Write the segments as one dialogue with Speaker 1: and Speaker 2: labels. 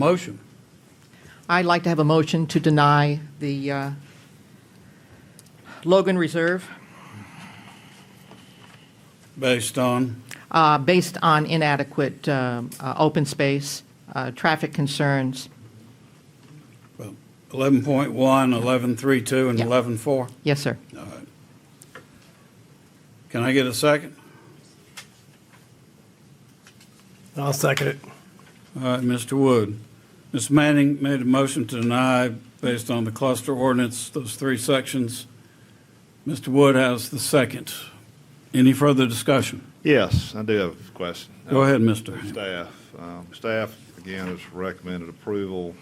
Speaker 1: Motion.
Speaker 2: I'd like to have a motion to deny the uh, Logan Reserve
Speaker 1: Based on,
Speaker 2: uh, based on inadequate um, uh, open space, uh, traffic concerns.
Speaker 1: well, 11.1, 11.32, and
Speaker 2: Yeah.
Speaker 1: 11.4.
Speaker 2: Yes, sir.
Speaker 1: Can I get a second?
Speaker 3: I'll second it.
Speaker 1: All right, Mr. Wood. Ms. Manning made a motion to deny based on the cluster ordinance, those three sections. Mr. Wood has the second. Any further discussion?
Speaker 4: Yes, I do have a question.
Speaker 1: Go ahead, Mr.
Speaker 4: Staff, Um, staff, again, has recommended approval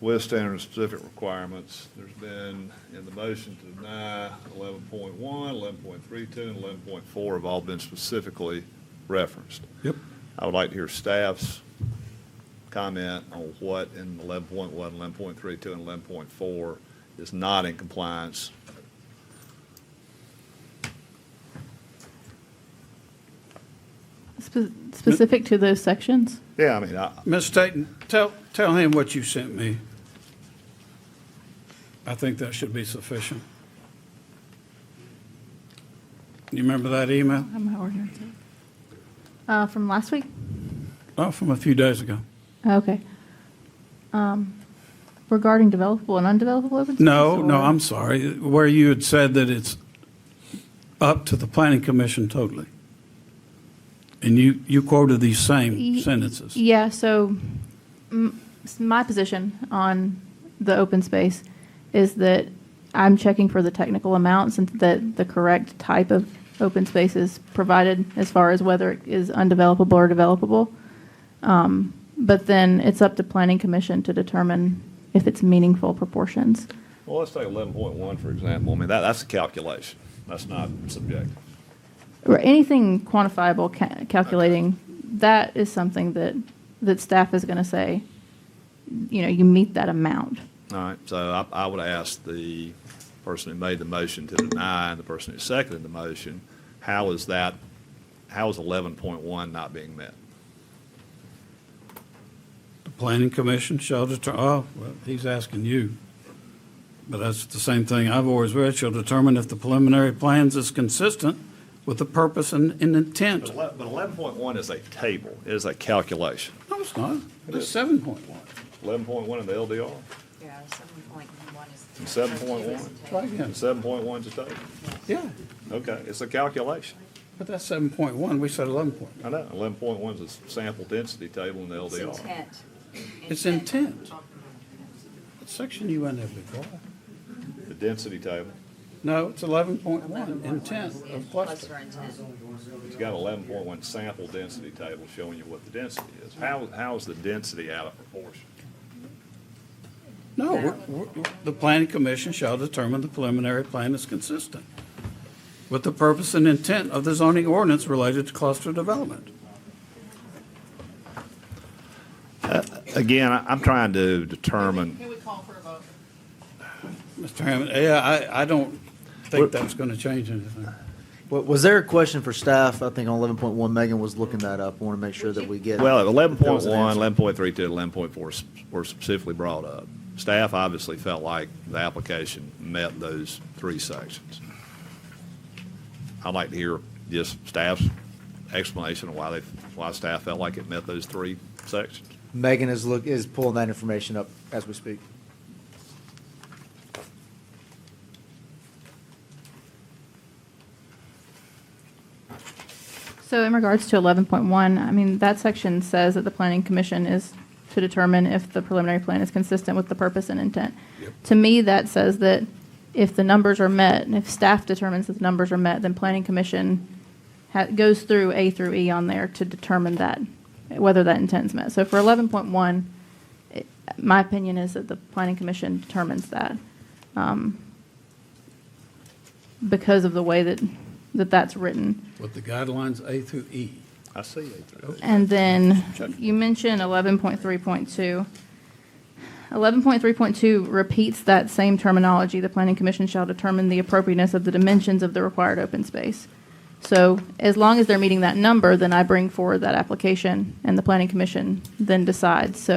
Speaker 4: with standard and specific requirements. There's been, in the motion to deny, 11.1, 11.32, and 11.4 have all been specifically referenced.
Speaker 1: Yep.
Speaker 4: I would like to hear staff's comment on what in 11.1, 11.32, and 11.4 is not in compliance.
Speaker 5: Spe- Specific to those sections?
Speaker 4: Yeah, I mean, I,
Speaker 1: Ms. Staton, tell, tell him what you sent me. I think that should be sufficient. You remember that email?
Speaker 5: On my ordinance. Uh, from last week?
Speaker 1: Oh, from a few days ago.
Speaker 5: Okay. Um, Regarding developable and undevelopable open space?
Speaker 1: No, no,
Speaker 5: or-
Speaker 1: I'm sorry, where you had said that it's up to the planning commission totally. And you, you quoted these same
Speaker 5: Y-
Speaker 1: sentences.
Speaker 5: Yeah, so m- s- my position on the open space is that I'm checking for the technical amounts and that the correct type of open space is provided as far as whether it is undevelopable or developable. Um, But then it's up to planning commission to determine if it's meaningful proportions.
Speaker 4: Well, let's take eleven point one, for example. I mean, that, that's a calculation. That's not subjective.
Speaker 5: Or anything quantifiable ca- calculating, that is something that, that staff is going to say, you know, you meet that amount.
Speaker 4: All right, so I, I would ask the person who made the motion to deny and the person who seconded the motion, how is that, how is eleven point one not being met?
Speaker 1: The planning commission shall deter, oh, well, he's asking you. But that's the same thing I've always read, shall determine if the preliminary plans is consistent with the purpose and, and intent.
Speaker 4: But eleven point one is a table, it is a calculation.
Speaker 1: No, it's not, it's seven point one.
Speaker 4: Eleven point one in the LDR,
Speaker 6: Yeah, seven point one is.
Speaker 4: seven point one.
Speaker 1: Try again,
Speaker 4: Seven point one is a table.
Speaker 1: yeah,
Speaker 4: Okay, it's a calculation.
Speaker 1: but that's seven point one, we said eleven point
Speaker 4: I know, eleven point one is a sample density table in the
Speaker 6: It's
Speaker 4: LDR.
Speaker 6: intent.
Speaker 1: It's intent. What section you in there before?
Speaker 4: The density table,
Speaker 1: No, it's eleven point one, intent of
Speaker 6: Plus
Speaker 1: cluster.
Speaker 6: or intent.
Speaker 4: it's got eleven point one sample density table showing you what the density is. How, how is the density out of proportion?
Speaker 1: No, we're- we're- the planning commission shall determine the preliminary plan is consistent with the purpose and intent of the zoning ordinance related to cluster development.
Speaker 4: Again, I- I'm trying to determine,
Speaker 2: we call for a vote?
Speaker 1: Mr. Hammond, yeah, I, I don't think that's gonna change anything.
Speaker 7: Wa- Was there a question for staff? I think on eleven point one, Megan was looking that up. I want to make sure that we get.
Speaker 4: well,
Speaker 7: There was
Speaker 4: 11.1,
Speaker 7: an answer.
Speaker 4: 11.32, 11.4 s- were specifically brought up. Staff obviously felt like the application met those three sections. I'd like to hear just staff's explanation of why they, why staff felt like it met those three sections.
Speaker 7: Megan is look, is pulling that information up as we speak.
Speaker 5: So in regards to 11.1, I mean, that section says that the planning commission is to determine if the preliminary plan is consistent with the purpose and intent. To me, that says that if the numbers are met, and if staff determines that the numbers are met, then planning commission ha- goes through A through E on there to determine that, whether that intent is met. So for 11.1, it- my opinion is that the planning commission determines that um, because of the way that, that that's written.
Speaker 1: With the guidelines A through E.
Speaker 4: I see A through
Speaker 5: And then
Speaker 4: Check.
Speaker 5: you mentioned eleven point three point two. Eleven point three point two repeats that same terminology. The planning commission shall determine the appropriateness of the dimensions of the required open space. So as long as they're meeting that number, then I bring forward that application, and the planning commission then decides. So